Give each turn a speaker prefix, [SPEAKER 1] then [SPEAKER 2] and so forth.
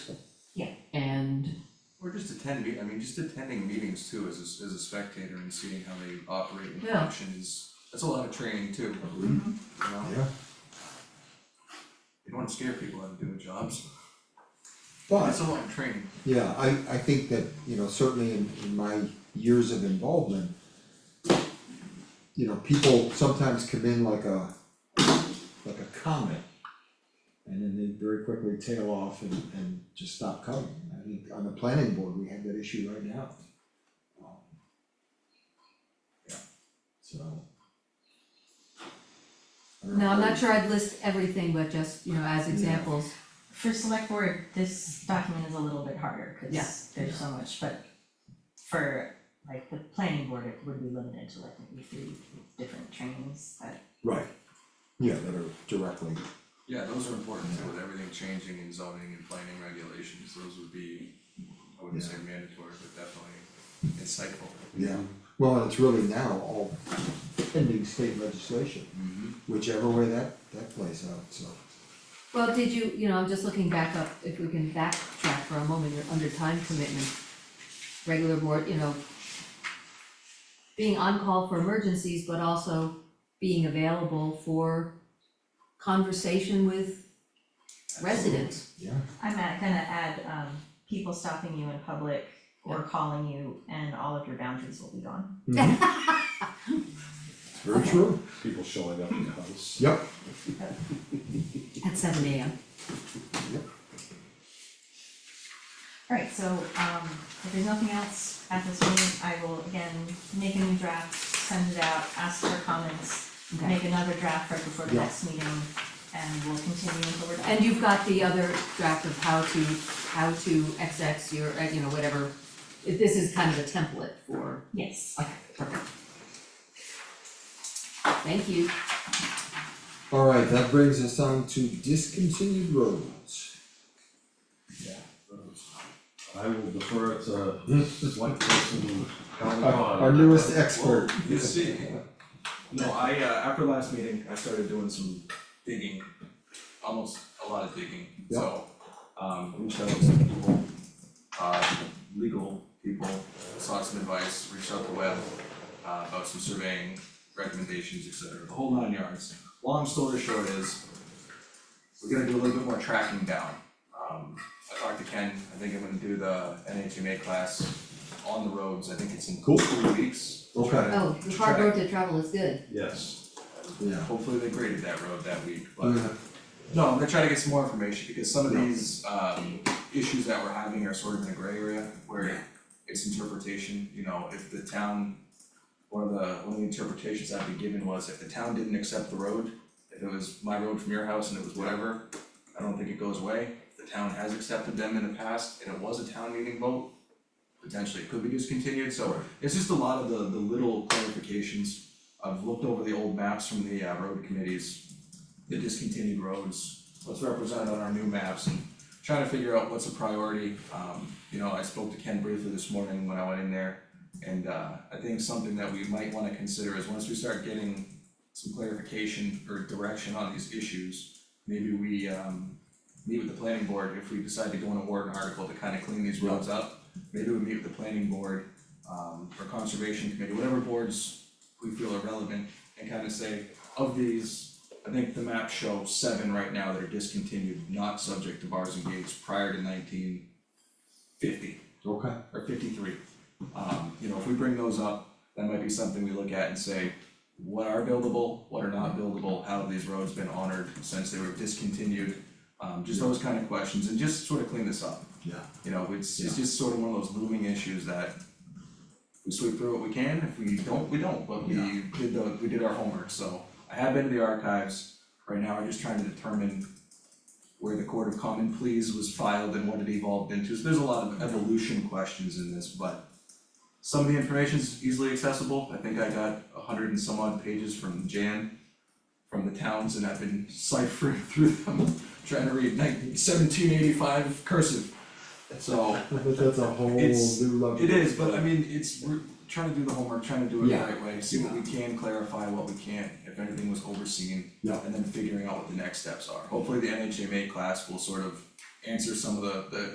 [SPEAKER 1] attend, me- I mean, just attending meetings too as a, as a spectator and seeing how they operate and
[SPEAKER 2] Yeah.
[SPEAKER 1] function is, that's a lot of training too, you know?
[SPEAKER 3] Yeah.
[SPEAKER 1] You don't wanna scare people out of doing jobs,
[SPEAKER 3] But,
[SPEAKER 1] that's a lot of training.
[SPEAKER 3] yeah, I, I think that, you know, certainly in, in my years of involvement, you know, people sometimes come in like a, like a comet. And then they very quickly tail off and, and just stop coming. I think on the planning board, we have that issue right now. Um, Yeah, so. I don't
[SPEAKER 2] No, I'm
[SPEAKER 3] know.
[SPEAKER 2] not sure I'd list everything, but just, you know, as examples,
[SPEAKER 4] For select board, this document is a little bit harder,
[SPEAKER 2] Yeah.
[SPEAKER 4] cause there's so much, but for like the planning board, it would be limited to like maybe three different trainings that.
[SPEAKER 3] Right, yeah, that are directly,
[SPEAKER 1] Yeah, those are important too, with everything changing in zoning and planning regulations, those would be, I wouldn't say mandatory, but definitely insightful.
[SPEAKER 3] yeah, well, and it's really now all pending state legislation,
[SPEAKER 1] Mm-hmm.
[SPEAKER 3] whichever way that that plays out, so.
[SPEAKER 2] Well, did you, you know, I'm just looking back up, if we can backtrack for a moment, you're under time commitment. Regular board, you know, being on call for emergencies, but also being available for conversation with residents.
[SPEAKER 3] Yeah.
[SPEAKER 4] I'm at, gonna add, um, people stopping you in public or calling you and all of your boundaries will be gone.
[SPEAKER 3] It's very true,
[SPEAKER 5] Mm-hmm. people showing up in the house.
[SPEAKER 3] yep,
[SPEAKER 2] At seven AM.
[SPEAKER 4] Alright, so, um, if there's nothing else at this meeting, I will again make a new draft, send it out, ask for comments,
[SPEAKER 2] Okay,
[SPEAKER 4] make another draft right before the
[SPEAKER 3] Yeah.
[SPEAKER 4] next meeting, and we'll continue until we're done.
[SPEAKER 2] and you've got the other draft of how to, how to XX your, uh, you know, whatever. If This is kind of a template for,
[SPEAKER 4] Yes.
[SPEAKER 2] okay, perfect. Thank you.
[SPEAKER 3] alright, that brings us on to discontinued roads.
[SPEAKER 5] I will defer it to select person Calvin
[SPEAKER 3] Our-
[SPEAKER 5] Khan.
[SPEAKER 3] Our newest expert,
[SPEAKER 1] You see, no, I, uh, after last meeting, I started doing some digging, almost a lot of digging, so, um, reached out to some people, uh, legal people, sought some advice, reached out to Webb, uh, about some surveying recommendations, et cetera, the whole nine yards. Long story short is, we're gonna do a little bit more tracking down. Um, I talked to Ken, I think I'm gonna do the NHMA class on the roads, I think it's in
[SPEAKER 3] Cool.
[SPEAKER 1] three weeks. Try
[SPEAKER 3] Okay.
[SPEAKER 1] to
[SPEAKER 2] Oh, the hard road to travel is good.
[SPEAKER 5] Yes,
[SPEAKER 3] yeah,
[SPEAKER 1] Hopefully they graded that road that week, but
[SPEAKER 3] yeah,
[SPEAKER 1] no, I'm gonna try to get some more information because some of
[SPEAKER 3] Yeah.
[SPEAKER 1] these um issues that we're having are sort of in a gray area where it's interpretation, you know, if the town one of the, one of the interpretations I'd be given was if the town didn't accept the road, if it was my road from your house and it was whatever, I don't think it goes away. If The town has accepted them in the past and it was a town meeting vote, potentially it could be discontinued, so it's just a lot of the the little clarifications. I've looked over the old maps from the uh road committees, the discontinued roads, what's represented on our new maps and trying to figure out what's a priority. Um, you know, I spoke to Ken briefly this morning when I went in there. And uh, I think something that we might wanna consider is once we start getting some clarification or direction on these issues, maybe we um meet with the planning board if we decide to go on a warrant article to kind of clean these roads up. Maybe we meet with the planning board um or conservation committee, whatever boards we feel are relevant and kind of say, of these, I think the maps show seven right now that are discontinued, not subject to bars and gates prior to nineteen fifty
[SPEAKER 3] okay,
[SPEAKER 1] or fifty-three. Um, you know, if we bring those up, that might be something we look at and say, what are buildable, what are not buildable, how have these roads been honored since they were discontinued? Um, just those kind of questions and just sort of clean this up,
[SPEAKER 3] yeah,
[SPEAKER 1] you know, it's, it's just sort of one of those looming issues that we sweep through what we can, if we don't, we don't, but we
[SPEAKER 3] Yeah.
[SPEAKER 1] did the, we did our homework, so I have been to the archives. Right now, I'm just trying to determine where the court of common pleas was filed and what it evolved into, so there's a lot of evolution questions in this, but some of the information's easily accessible, I think I got a hundred and some odd pages from Jan from the towns, and I've been ciphering through them, trying to read nineteen seventeen eighty-five cursive. So,
[SPEAKER 3] but that's a whole new
[SPEAKER 1] It's-
[SPEAKER 3] level.
[SPEAKER 1] it is, but I mean, it's, we're trying to do the homework, trying to do it the
[SPEAKER 3] Yeah.
[SPEAKER 1] right way, see what we can clarify, what we can't, if anything was overseen.
[SPEAKER 3] Yeah.
[SPEAKER 1] And then figuring out what the next steps are. Hopefully, the NHMA class will sort of answer some of the, the